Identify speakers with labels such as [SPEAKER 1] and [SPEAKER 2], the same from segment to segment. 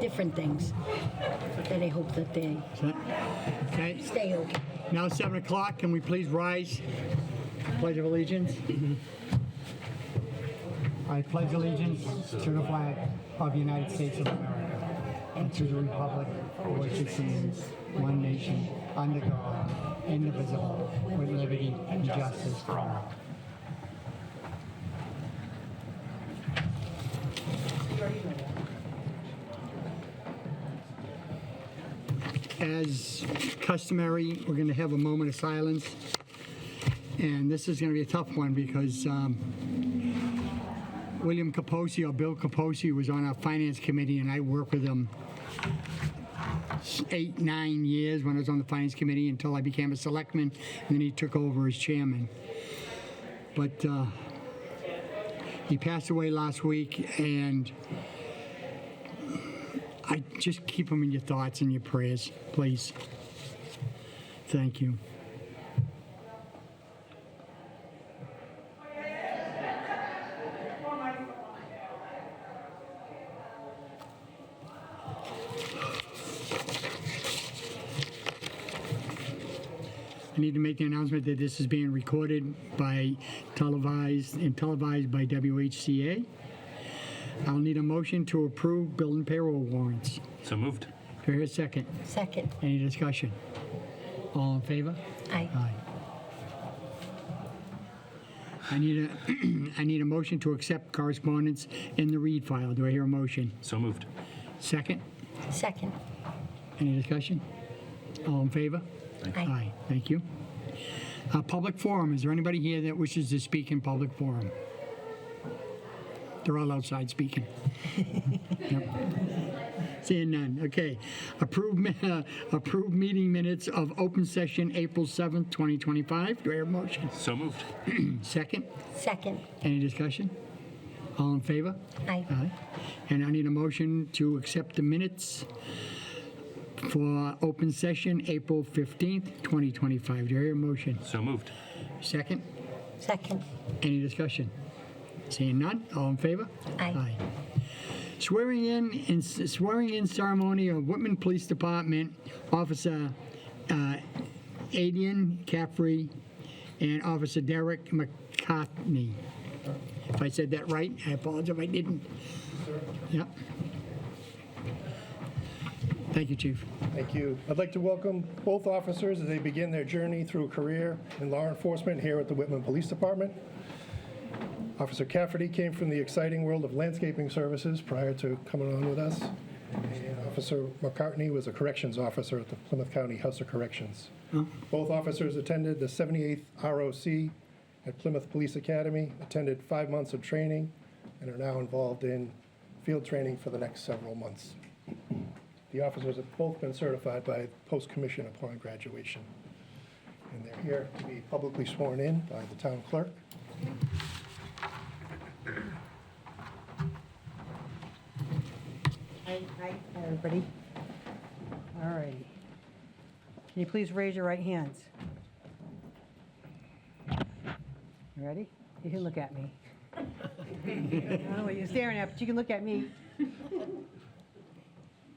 [SPEAKER 1] different things that I hope that they
[SPEAKER 2] Okay,
[SPEAKER 1] stay open.
[SPEAKER 2] now it's 7 o'clock. Can we please rise? Pledge of allegiance. I pledge allegiance to the flag of the United States of America and to the republic for which it stands, one nation, under God, indivisible, with liberty and justice for all. As customary, we're going to have a moment of silence. And this is going to be a tough one because um, William Kaposi or Bill Kaposi was on our finance committee and I worked with him s- eight, nine years when I was on the finance committee until I became a selectman and then he took over as chairman. But uh, he passed away last week and I just keep him in your thoughts and your prayers, please. Thank you. I need to make the announcement that this is being recorded by televised and televised by WHCA. I'll need a motion to approve bill and payroll warrants.
[SPEAKER 3] So moved.
[SPEAKER 2] Do I hear a second?
[SPEAKER 1] Second,
[SPEAKER 2] Any discussion? All in favor?
[SPEAKER 1] I
[SPEAKER 2] Aye. I need a, I need a motion to accept correspondence in the read file. Do I hear a motion?
[SPEAKER 3] So moved.
[SPEAKER 2] Second?
[SPEAKER 1] second,
[SPEAKER 2] Any discussion? All in favor?
[SPEAKER 1] I
[SPEAKER 2] Aye, thank you. Uh, Public forum, is there anybody here that wishes to speak in public forum? They're all outside speaking. Yep. Seeing none, okay. Approved, mi- uh, approved meeting minutes of open session April 7th, 2025. Do I hear a motion?
[SPEAKER 3] So moved.
[SPEAKER 2] Second,
[SPEAKER 1] second,
[SPEAKER 2] any discussion? All in favor?
[SPEAKER 1] I
[SPEAKER 2] Aye. And I need a motion to accept the minutes for open session, April 15th, 2025. Do I hear a motion?
[SPEAKER 3] So moved.
[SPEAKER 2] Second?
[SPEAKER 1] second,
[SPEAKER 2] Any discussion? Seeing none, all in favor?
[SPEAKER 1] Aye.
[SPEAKER 2] Swearing in, and s- swearing in ceremony of Whitman Police Department Officer uh, Adian Caffrey and Officer Derek McCartney. If I said that right, I apologize if I didn't. Yep. Thank you, Chief.
[SPEAKER 4] Thank you. I'd like to welcome both officers as they begin their journey through a career in law enforcement here at the Whitman Police Department. Officer Cafferty came from the exciting world of landscaping services prior to coming on with us. And Officer McCartney was a corrections officer at the Plymouth County House of Corrections. Both officers attended the 78th ROC at Plymouth Police Academy, attended five months of training, and are now involved in field training for the next several months. The officers have both been certified by post-commission upon graduation. And they're here to be publicly sworn in by the town clerk.
[SPEAKER 5] Hi, hi, everybody. All righty. Can you please raise your right hands? You ready? You can look at me. I don't know what you're staring at, but you can look at me.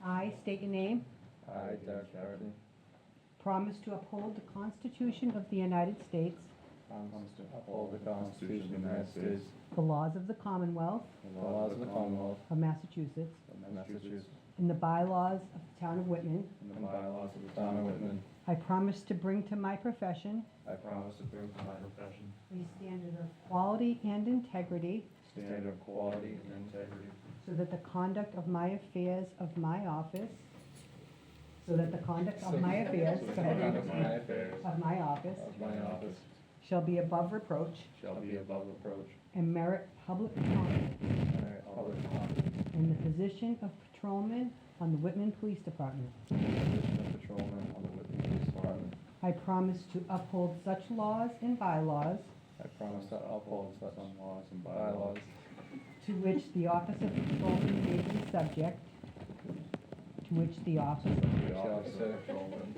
[SPEAKER 5] I state your name,
[SPEAKER 6] I, Doug Dougherty,
[SPEAKER 5] promise to uphold the Constitution of the United States,
[SPEAKER 6] promise to uphold the Constitution of the United States,
[SPEAKER 5] the laws of the Commonwealth
[SPEAKER 6] the laws of the Commonwealth
[SPEAKER 5] of Massachusetts,
[SPEAKER 6] of Massachusetts,
[SPEAKER 5] and the bylaws of the town of Whitman.
[SPEAKER 6] and the bylaws of the town of Whitman.
[SPEAKER 5] I promise to bring to my profession
[SPEAKER 6] I promise to bring to my profession
[SPEAKER 5] a standard of quality and integrity
[SPEAKER 6] standard of quality and integrity,
[SPEAKER 5] So that the conduct of my affairs of my office, so that the conduct of my affairs
[SPEAKER 6] so the conduct of my affairs
[SPEAKER 5] of my office
[SPEAKER 6] of my office
[SPEAKER 5] shall be above reproach
[SPEAKER 6] shall be above reproach,
[SPEAKER 5] and merit public confidence
[SPEAKER 6] and I always honor
[SPEAKER 5] in the position of patrolman on the Whitman Police Department.
[SPEAKER 6] the position of patrolman on the Whitman Police Department.
[SPEAKER 5] I promise to uphold such laws and bylaws
[SPEAKER 6] I promise to uphold such laws and bylaws
[SPEAKER 5] to which the office of patrolman may be subject, to which the office of
[SPEAKER 6] of the office of patrolman